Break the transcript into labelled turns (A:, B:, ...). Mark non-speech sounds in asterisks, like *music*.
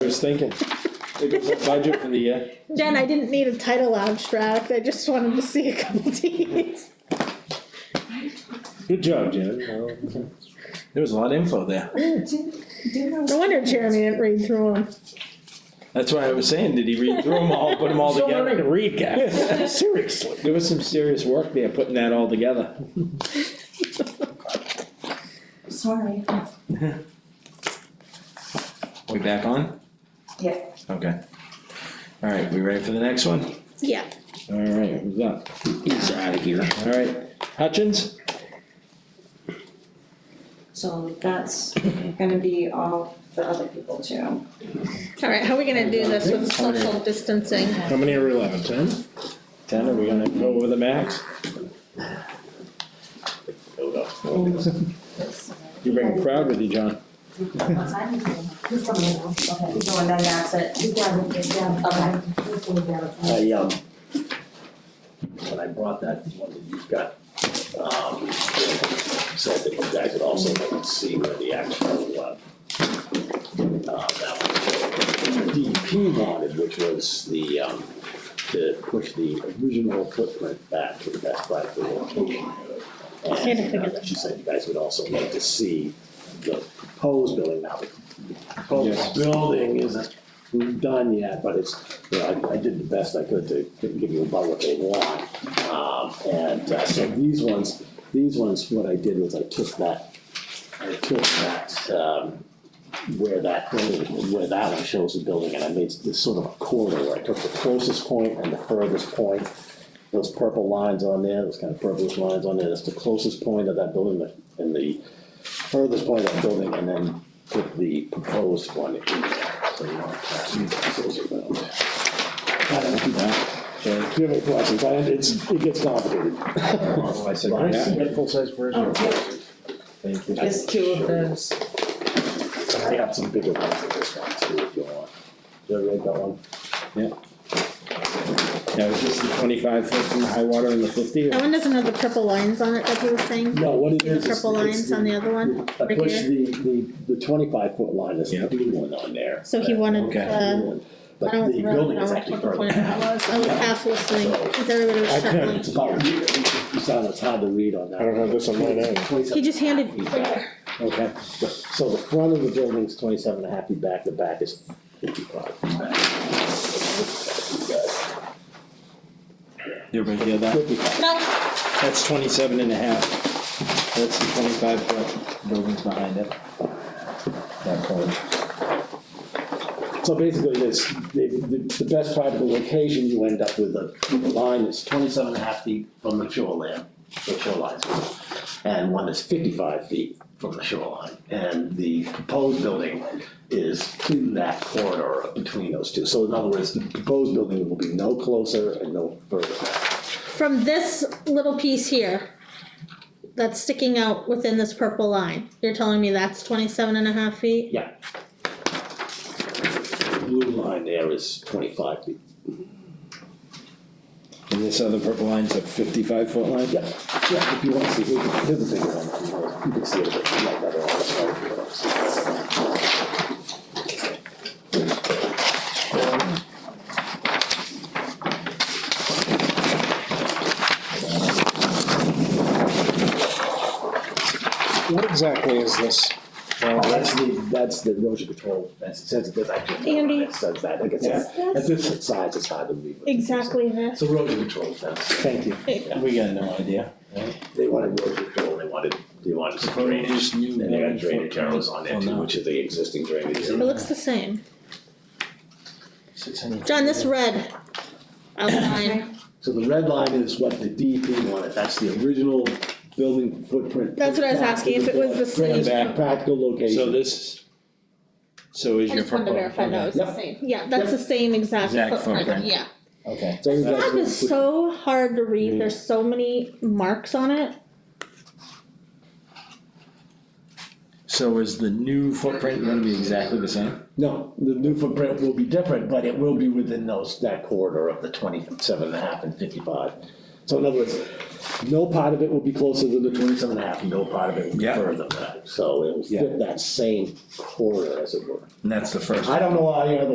A: was thinking. Think of the budget for the year.
B: Jen, I didn't need a title abstract, I just wanted to see a couple deeds.
A: Good job, Jen. Well, There was a lot of info there.
B: *laughs* No wonder Jeremy didn't read through them.
C: That's why I was saying, did he read through them all, put them all
A: Still learning to
C: together?
A: read,
C: *laughs*
A: guys. Seriously.
C: There was some serious work there, putting that all together.
D: Sorry.
C: We back on?
D: Yeah.
C: Okay. All right, we ready for the next one?
B: Yeah.
C: All right, who's up? He's out of here. All right, Hutchins?
D: So that's gonna be all the other people too.
B: Alright, how are we gonna do this with social distancing?
A: How many are we allowed? Ten?
C: Ten, are we gonna go over the max? You bring a crowd with you, John.
E: He's coming now, okay.
D: He's going down the exit.
E: He's down, he's down. He's going down.
F: I, um, when I brought that one that you've got, um, said that you guys would also like to see where the actual, uh, uh, that was, DEP wanted, which was the, um, to push the original footprint back to the best practical location.
B: Can't figure
F: And uh, she said you guys would also like to see the proposed building now. The
C: Yes.
F: proposed building isn't done yet, but it's you know, I, I did the best I could to give you about what they want. Um, and, uh, so these ones, these ones, what I did was I took that, I took that, um, where that building, where that one shows the building, and I made this sort of a corridor, where I took the closest point and the furthest point. Those purple lines on there, those kind of purplish lines on there, that's the closest point of that building, and the furthest point of that building, and then put the proposed one in there, so you don't have to- those are the- I don't do that. So if you have any questions, I- it's, it gets
C: *laughs*
F: complicated.
C: I said, yeah.
A: full-size version.
C: Thank you.
D: There's Oh, two of those.
F: I have some bigger ones than this one too, if you want. Did I write that one?
C: Yeah, it was just the twenty-five foot from the high water and the fifty.
B: That one doesn't have the purple lines on it that you were saying?
F: No, what it
B: The
F: is. is
B: purple
F: it's
B: lines on the other one?
F: I
B: right
F: pushed
B: here?
F: the, the, the twenty-five foot line, there's a new one on there.
B: So he wanted,
C: Okay.
B: uh, I
F: But
B: don't
F: the
B: really
F: building
B: know
F: is
B: what
F: actually
B: the point
F: further
B: of that
F: out.
B: was, I was half listening, because everybody
F: I
B: was
F: couldn't,
B: shut
F: it's about, you sound, it's hard to read on that.
A: I don't have this on mine either.
B: up. He just handed,
F: Okay, so the front of the building is twenty-seven and a half feet back, the back is fifty-five.
C: You ever hear that?
F: Fifty-five,
B: no,
C: That's twenty-seven and a half. That's the twenty-five foot buildings behind it. That corner.
F: so basically, this, the, the, the best practical location, you end up with a line that's twenty-seven and a half feet from the shoreline, the shoreline. And one that's fifty-five feet from the shoreline, and the proposed building is in that corridor between those two. So in other words, the proposed building will be no closer and no further back.
B: from this little piece here that's sticking out within this purple line, you're telling me that's 27 and a half feet?
F: Yeah. Blue line there is twenty-five feet.
C: And this other purple line's a fifty-five foot line?
F: Yeah, yeah, if you want to see, here's here's the bigger one, you can see it a bit like that, or I'll show you what else.
A: What exactly is this?
C: Oh,
F: Well, that's the, that's the erosion control, that's, it says it, that's actually.
B: Andy.
F: It says that, like I said, at this size, it's hard to read. what it is.
B: Exactly
F: It's
B: this.
F: erosion control fence,
C: Thank you. We got no idea.
F: they wanted erosion control, they wanted, they wanted some drainage,
C: Just new
F: and they got
C: building
F: drainage
C: footprint.
F: arrows on there
C: Oh,
F: too,
C: no.
F: which is the existing drainage.
B: It
F: area.
B: looks the same.
C: 600.
B: John, this red
C: *coughs*
B: outline,
F: So the red line is what the DEP wanted, that's the original building footprint.
B: That's what I was
F: Back to
B: asking, if it was the
F: drainage
C: same.
F: Practical location.
C: So this, so is
B: I
C: your
B: just wanted to
C: purple.
B: verify that was the
F: Yep.
B: same. Yeah, that's the same exact
C: Exact
B: footprint,
C: footprint.
B: yeah.
C: Okay.
F: So you guys
B: That
F: will-
B: is so hard to read, there's so many marks on it.
C: So is the new footprint gonna be exactly the same?
F: No, the new footprint will be different, but it will be within those, that corridor of the twenty-seven and a half and fifty-five. So in other words, no part of it will be closer than the twenty-seven and a half, no part of it will be
A: Yeah.
F: further than that. So it will
C: Yeah.
F: fit that same corridor as it were.
A: And that's the first.
F: I uh, don't know, why, you know, the